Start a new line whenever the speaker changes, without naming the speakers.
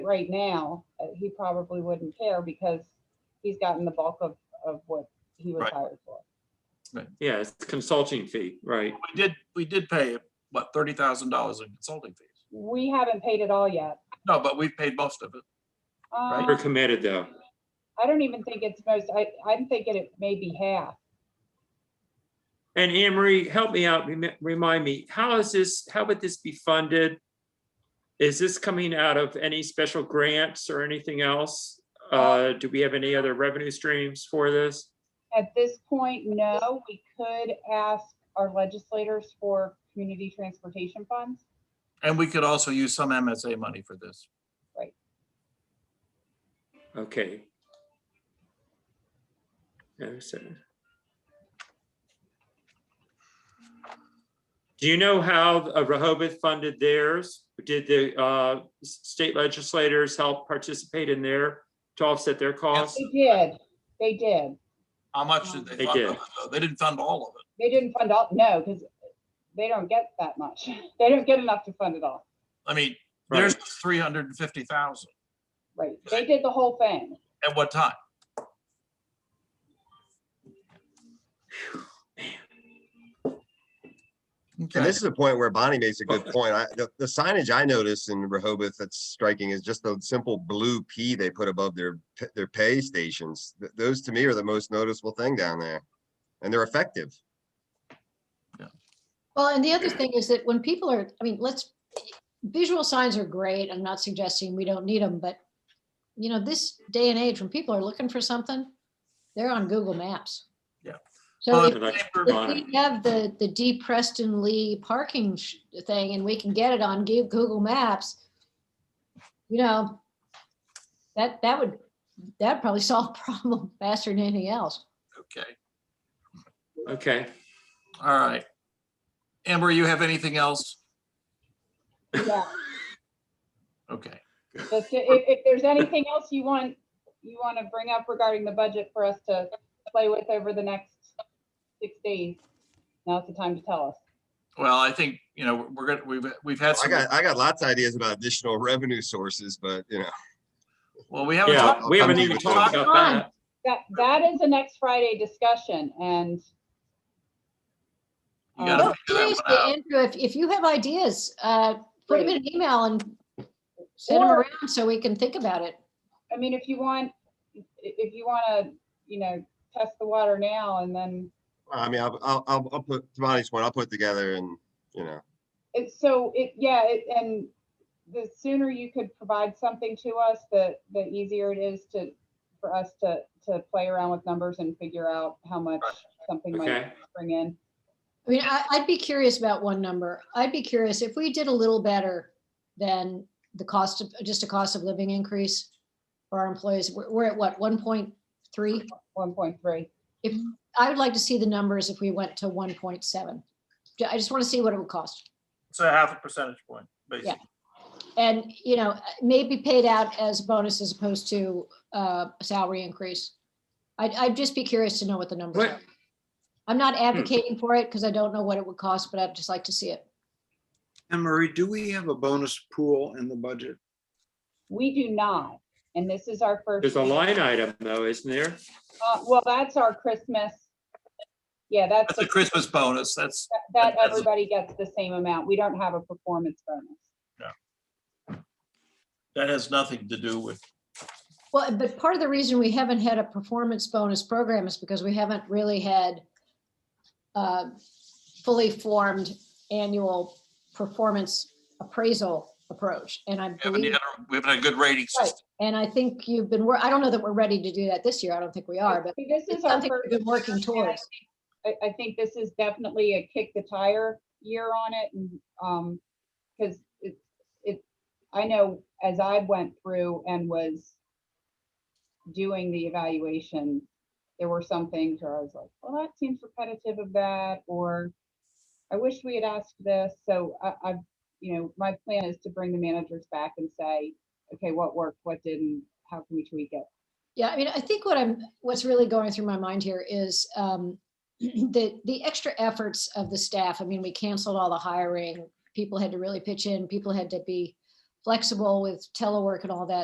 right now, uh, he probably wouldn't care because he's gotten the bulk of, of what he was
Right.
hired for.
Yeah, it's consulting fee, right?
We did, we did pay, what, thirty thousand dollars in consulting fees?
We haven't paid it all yet.
No, but we've paid most of it. Right.
We're
Um,
committed though.
I don't even think it's most, I, I'm thinking it may be half.
And Anne Marie, help me out, remi- remind me, how is this, how would this be funded? Is this coming out of any special grants or anything else? Uh, do we have any other revenue streams for this?
At this point, no, we could ask our legislators for community transportation funds.
And we could also use some MSA money for this.
Okay. Oh, so- Do you know how uh, Rehoboth funded theirs? Did the uh, s- state legislators help participate in their, to offset their costs?
They did, they did.
How much did
They
they fund?
did.
of it, though? They didn't fund all of it.
They didn't fund all, no, because they don't get that much. They don't get enough to fund it all.
I mean,
Right.
there's three hundred and fifty thousand.
Right, they did the whole thing.
At what time?
And
Okay,
this is a point where Bonnie makes a good point. I, the, the signage I noticed in Rehoboth that's striking is just the simple blue P they put above their, p- their pay stations. Th- Those to me are the most noticeable thing down there. And they're effective.
Well, and the other thing is that when people are, I mean, let's, visual signs are great. I'm not suggesting we don't need them, but you know, this day and age, when people are looking for something, they're on Google Maps.
Yeah.
So if-
Well,
Like,
paper-
if we have the, the D Preston Lee parking sh- thing and we can get it on Gu- Google Maps, you know, that, that would, that'd probably solve the problem faster than anything else.
okay,
Okay,
all right. Amber, you have anything else?
Yeah,
Okay,
just i- if, if there's anything else you want, you want to bring up regarding the budget for us to play with over the next six days, now's the time to tell us.
well, I think, you know, we're gonna, we've, we've had
I
some,
got, I got lots of ideas about additional revenue sources, but you know.
well, we haven't.
yeah,
talked-
we haven't
Come
even
to
talked
the-
about that.
That, that is the next Friday discussion and
You gotta
um,
figure that one
Seriously,
out.
Andrew, if, if you have ideas, uh, put them in an email and send them
Or-
around so we can think about it.
I mean, if you want, i- if you want to, you know, test the water now and then,
I mean, I'll, I'll, I'll I'll put, to Bonnie's point, I'll put it together and, you know,
it's so, it, yeah, it- and the sooner you could provide something to us, the, the easier it is to, for us to, to play around with numbers and figure out how much something might
Okay,
bring in.
I mean, I, I'd be curious about one number. I'd be curious if we did a little better than the cost of, just a cost of living increase for our employees. We're, we're at what, one point three?
One point three.
I would like to see the numbers if we went to one point seven. I just want to see what it would cost.
So half a percentage point, basically.
And, you know, maybe paid out as bonus as opposed to uh, a salary increase. I'd, I'd just be curious to know what the numbers
What-
are. I'm not advocating for it because I don't know what it would cost, but I'd just like to see it.
And Marie, do we have a bonus pool in the budget?
We do not, and this is our first.
there's a
year.
line item though, isn't there?
Uh, Well, that's our Christmas. Yeah, that's,
That's a
the-
Christmas bonus, that's,
that
that's a-
everybody gets the same amount. We don't have a performance bonus.
that has nothing to do with,
Well, but part of the reason we haven't had a performance bonus program is because we haven't really had uh, fully formed annual performance appraisal approach. And I
we haven't
believe,
had a- we haven't had a good rating system.
and I think you've been, wor- I don't know that we're ready to do that this year. I don't think we are, but
See, This
it's
is our
something
first.
we've been working
year, and I
towards.
think- I, I think this is definitely a kick the tire year on it and, um, because it, it, I know as I went through and was doing the evaluation, there were some things where I was like, well, that seems repetitive of that, or I wish we had asked this. So I, I've, you know, my plan is to bring the managers back and say, okay, what worked, what didn't, how can we tweak it?
Yeah, I mean, I think what I'm, what's really going through my mind here is um, the, the extra efforts of the staff. I mean, we canceled all the hiring. People had to really pitch in. People had to be flexible with telework and all that.